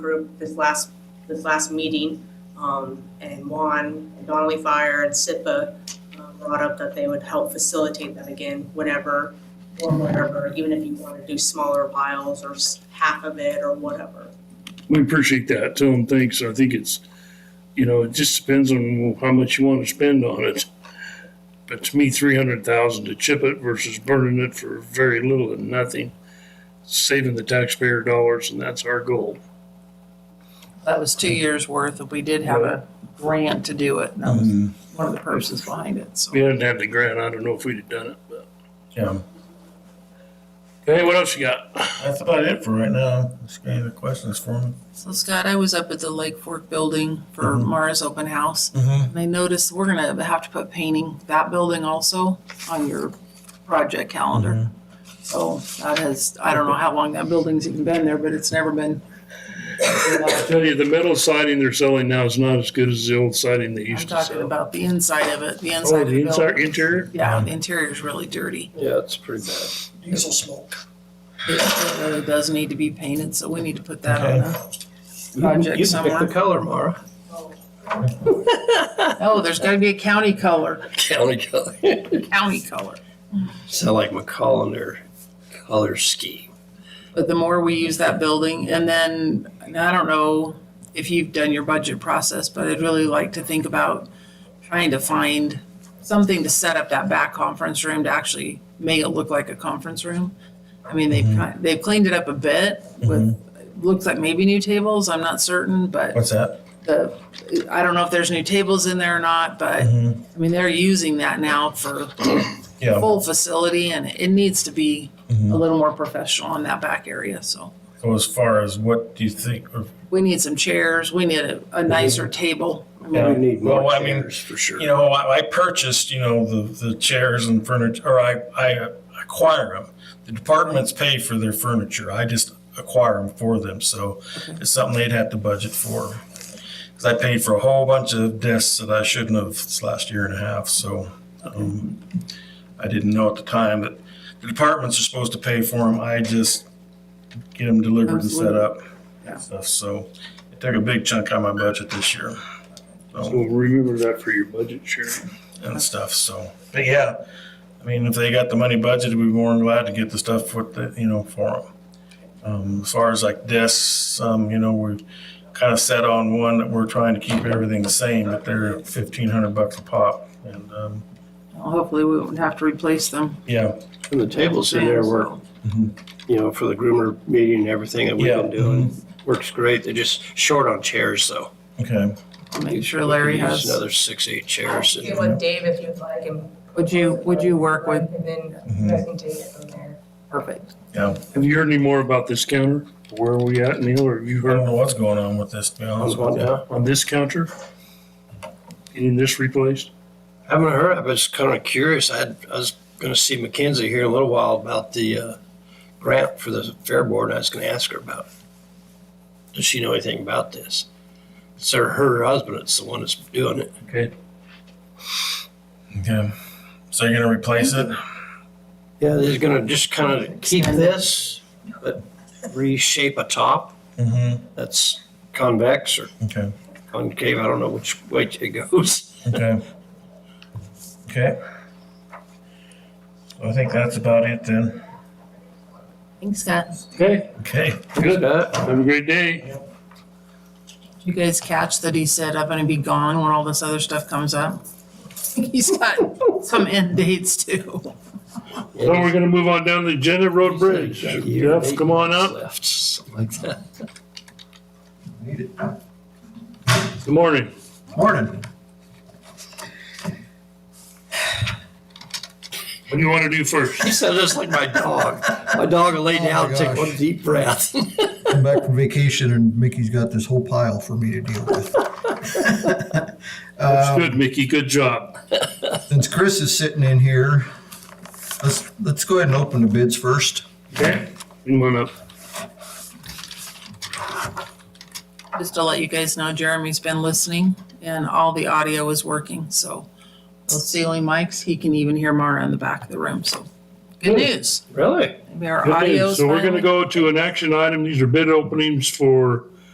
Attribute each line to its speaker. Speaker 1: group this last, this last meeting. Um, and Juan and Donnelly Fire and SIPA uh, brought up that they would help facilitate that again whenever or whatever, even if you want to do smaller piles or s- half of it or whatever.
Speaker 2: We appreciate that. Tell them thanks. I think it's, you know, it just depends on how much you want to spend on it. But to me, three hundred thousand to chip it versus burning it for very little and nothing, saving the taxpayer dollars, and that's our goal.
Speaker 3: That was two years' worth, and we did have a grant to do it, and that was one of the purposes behind it, so.
Speaker 2: If we hadn't had the grant, I don't know if we'd have done it. But
Speaker 4: Yeah,
Speaker 2: hey, what else you got?
Speaker 4: that's about it for right now. Just got any other questions for me?
Speaker 3: So Scott, I was up at the Lake Fork building for
Speaker 4: Mhm.
Speaker 3: Mara's open house,
Speaker 4: Mm-hmm.
Speaker 3: and I noticed we're gonna have to put painting that building also on your project calendar. So that has, I don't know how long that building's even been there, but it's never been.
Speaker 2: I tell you, the metal siding they're selling now is not as good as the old siding they
Speaker 3: I'm
Speaker 2: used to
Speaker 3: talking
Speaker 2: sell.
Speaker 3: about the inside of it, the inside
Speaker 2: Oh,
Speaker 3: of
Speaker 2: the
Speaker 3: the
Speaker 2: inside
Speaker 3: building.
Speaker 2: interior?
Speaker 3: Yeah, the interior's really dirty.
Speaker 2: Yeah, it's pretty bad.
Speaker 5: diesel smoke.
Speaker 3: It really does need to be painted, so we need to put that on
Speaker 4: Okay.
Speaker 3: a project somewhere.
Speaker 6: color, Mara.
Speaker 3: Oh, there's gotta be a county color,
Speaker 6: County color.
Speaker 3: county color.
Speaker 6: Sound like McCollum there, color scheme.
Speaker 3: But the more we use that building, and then, and I don't know if you've done your budget process, but I'd really like to think about trying to find something to set up that back conference room to actually make it look like a conference room. I mean, they've, ki- they've cleaned it up a bit with, looks like maybe new tables, I'm not certain, but
Speaker 4: What's that?
Speaker 3: the, I don't know if there's new tables in there or not, but I mean, they're using that now for
Speaker 4: Yeah,
Speaker 3: full facility and it needs to be a little more professional in that back area, so.
Speaker 4: so as far as what do you think, or,
Speaker 3: We need some chairs, we need a, a nicer table. I mean,
Speaker 4: Yeah.
Speaker 6: We need more
Speaker 4: Well, I mean,
Speaker 6: chairs for sure.
Speaker 4: you know, I, I purchased, you know, the, the chairs and furniture, or I, I uh, acquire them. The departments pay for their furniture. I just acquire them for them, so it's something they'd have to budget for. Cause I paid for a whole bunch of desks that I shouldn't have this last year and a half, so, um, I didn't know at the time that the departments are supposed to pay for them. I just get them delivered and set
Speaker 3: Absolutely.
Speaker 4: up.
Speaker 3: Yeah.
Speaker 4: and Stuff, so it took a big chunk out of my budget this year
Speaker 2: So remember that for your budget, Sharon.
Speaker 4: and stuff. So, but yeah, I mean, if they got the money budgeted, we'd be more than glad to get the stuff with the, you know, for them. Um, as far as like desks, um, you know, we're kind of set on one that we're trying to keep everything the same, but they're fifteen hundred bucks a pop. And, um,
Speaker 3: well, Hopefully we won't have to replace them.
Speaker 4: yeah,
Speaker 6: And the tables in there work,
Speaker 3: So,
Speaker 6: you know, for the groomer meeting and everything that we've
Speaker 4: Yeah.
Speaker 6: been doing. Works great. They're just short on chairs though.
Speaker 4: okay.
Speaker 3: I'll Make sure Larry
Speaker 6: Use
Speaker 3: has,
Speaker 6: Another six, eight chairs. and-
Speaker 1: with Dave if you'd like and.
Speaker 3: would you, would you work with?
Speaker 1: And then
Speaker 4: Mhm.
Speaker 1: I can take it from there.
Speaker 3: Perfect.
Speaker 4: Yeah.
Speaker 2: Have you heard any more about this counter? Where are we at, Neil? Or have you
Speaker 4: I don't
Speaker 2: heard
Speaker 4: know what's going on with this, to be
Speaker 6: How's
Speaker 4: honest
Speaker 6: one
Speaker 4: with you.
Speaker 6: now?
Speaker 2: on this counter? Getting this replaced?
Speaker 6: Haven't heard. I was kind of curious. I had, I was gonna see Mackenzie here in a little while about the, uh, grant for the fair board. and I was gonna ask her about. it. Does she know anything about this? It's her, her husband. It's the one that's doing it.
Speaker 2: Okay.
Speaker 4: Okay. So you're gonna replace it?
Speaker 6: Yeah, they're gonna just kind of keep this, but reshape a top
Speaker 4: Mm-hmm.
Speaker 6: that's convex or
Speaker 4: Okay.
Speaker 6: concave, I don't know which way it goes.
Speaker 4: Okay. Okay. I think that's about it then.
Speaker 3: Thanks, Scott.
Speaker 2: Okay,
Speaker 4: Okay.
Speaker 2: good.
Speaker 6: Uh,
Speaker 2: Have a great day.
Speaker 3: Did You guys catch that he said, I'm gonna be gone when all this other stuff comes up? He's got some end dates too.
Speaker 2: So we're gonna move on down the agenda, Road Bridge.
Speaker 6: Year and
Speaker 2: Jeff,
Speaker 6: eight
Speaker 2: come on
Speaker 6: months
Speaker 2: up.
Speaker 6: Left, something like that.
Speaker 2: Good morning.
Speaker 4: Morning.
Speaker 2: What do you wanna do first?
Speaker 6: He said it's like my dog. My dog will lay
Speaker 7: my
Speaker 6: down and take
Speaker 7: gosh.
Speaker 6: one deep breath.
Speaker 7: come back from vacation and Mickey's got this whole pile for me to deal with.
Speaker 2: That's good, Mickey. Good job.
Speaker 7: Since Chris is sitting in here, let's, let's go ahead and open the bids first.
Speaker 2: Okay. Come on up.
Speaker 3: Just to let you guys know, Jeremy's been listening and all the audio is working, so. Those ceiling mics, he can even hear Mara in the back of the room, so. Good news.
Speaker 6: Really?
Speaker 3: Maybe our
Speaker 2: Good news.
Speaker 3: audio's
Speaker 2: So we're gonna
Speaker 3: finally.
Speaker 2: go to an action item. These are bid openings for